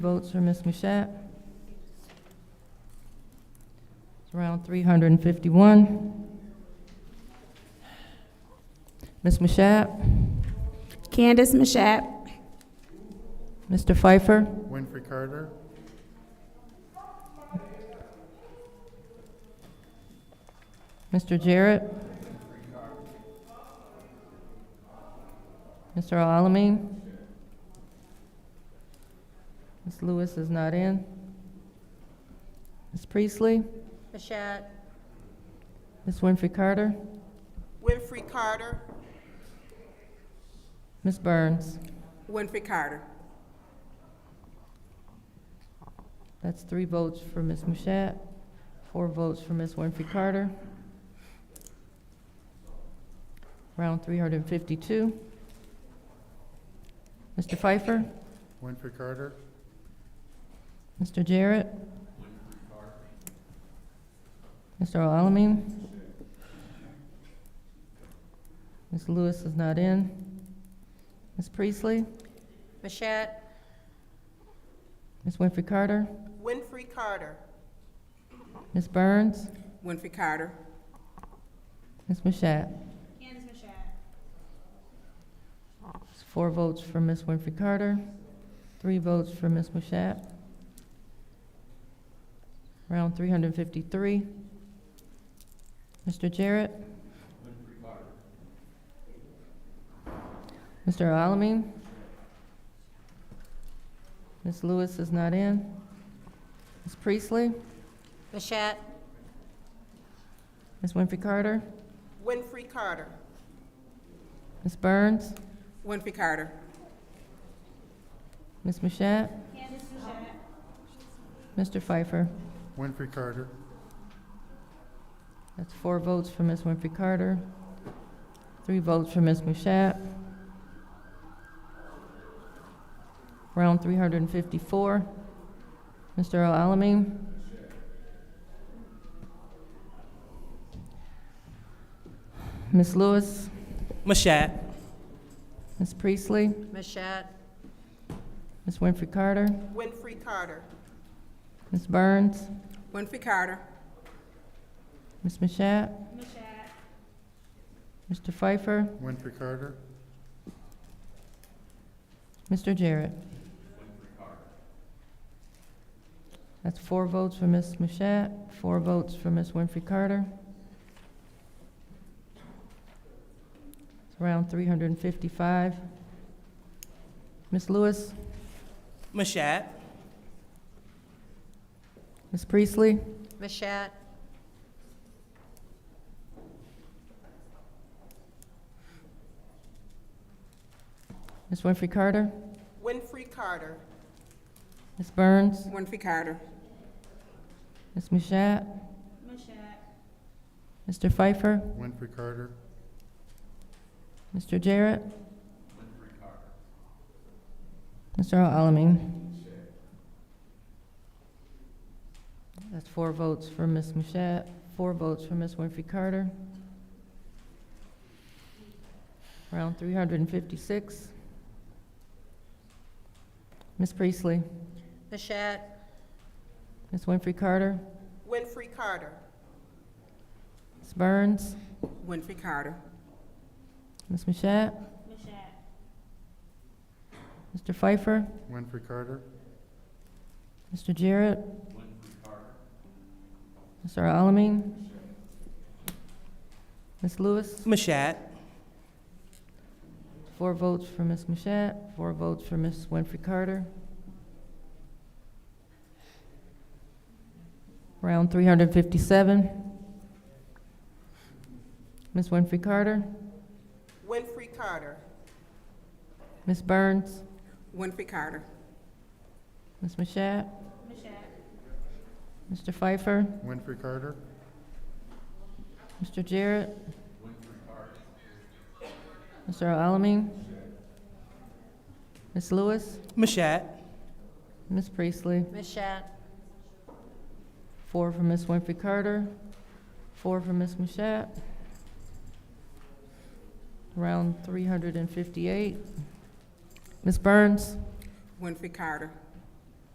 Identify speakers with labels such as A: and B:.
A: Votes for Ms. Mashat. It's around 351. Ms. Mashat,
B: Candace Mashat.
A: Mr. Pfeiffer,
C: Winfrey Carter,
A: Mr. Jarrett. Mr. Alamin. Ms. Lewis is not in. Ms. Priestley,
D: Mashat.
A: Ms. Winfrey Carter,
E: Winfrey Carter.
A: Ms. Burns.
E: Winfrey Carter.
A: That's three votes for Ms. Mashat, four votes for Ms. Winfrey Carter. Round three hundred and fifty-two. Mr. Pfeiffer,
C: Winfrey Carter,
A: Mr. Jarrett. Mr. Alamin. Ms. Lewis is not in. Ms. Priestley,
D: Mashat.
A: Ms. Winfrey Carter,
E: Winfrey Carter.
A: Ms. Burns,
E: Winfrey Carter.
A: Ms. Mashat.
B: Candace Mashat.
A: It's Four votes for Ms. Winfrey Carter, three votes for Ms. Mashat. Round three hundred and fifty-three. Mr. Jarrett? Mr. Alamin? Ms. Lewis is not in. Ms. Priestley?
D: Mashat.
A: Ms. Winfrey Carter?
E: Winfrey Carter.
A: Ms. Burns?
E: Winfrey Carter.
A: Ms. Mashat? Mr. Pfeiffer?
C: Winfrey Carter,
A: That's four votes for Ms. Winfrey Carter, three votes for Ms. Mushat. Round three hundred and fifty-four. Mr. Alamin. Ms. Lewis,
F: Mashat.
A: Ms. Priestley,
D: Mashat.
A: Ms. Winfrey Carter,
E: Winfrey Carter.
A: Ms. Burns,
E: Winfrey Carter.
A: Ms. Mushat. Mr. Pfeiffer,
C: Winfrey Carter,
A: Mr. Jarrett. That's four votes for Ms. Mashat, four votes for Ms. Winfrey Carter. It's around three hundred and fifty-five. Ms. Lewis,
F: Mashat.
A: Ms. Priestley,
D: Mashat.
A: Ms. Winfrey Carter,
E: Winfrey Carter.
A: Ms. Burns,
E: Winfrey Carter.
A: Ms. Mashat. Mr. Pfeiffer,
C: Winfrey Carter,
A: Mr. Jarrett. Mr. Alamin. That's four votes for Ms. Mashat, four votes for Ms. Winfrey Carter. Round three hundred and fifty-six. Ms. Priestley,
D: Mashat.
A: Ms. Winfrey Carter,
E: Winfrey Carter.
A: Ms. Burns,
E: Winfrey Carter.
A: Ms. Mashat. Mr. Pfeiffer,
C: Winfrey Carter,
A: Mr. Jarrett. Mr. Alamin. Ms. Lewis,
F: Mashat.
A: four votes for Ms. Mashat, four votes for Ms. Winfrey Carter. Round three hundred fifty-seven. Ms. Winfrey Carter,
E: Winfrey Carter.
A: Ms. Burns,
E: Winfrey Carter.
A: Ms. Mashat. Mr. Pfeiffer,
C: Winfrey Carter,
A: Mr. Jarrett. Mr. Alamin. Ms. Lewis,
F: Mashat.
A: Ms. Priestley.
D: Mashat.
A: Four for Ms. Winfrey Carter, four for Ms. Mashat. Round three hundred and fifty-eight. Ms. Burns,
E: Winfrey Carter.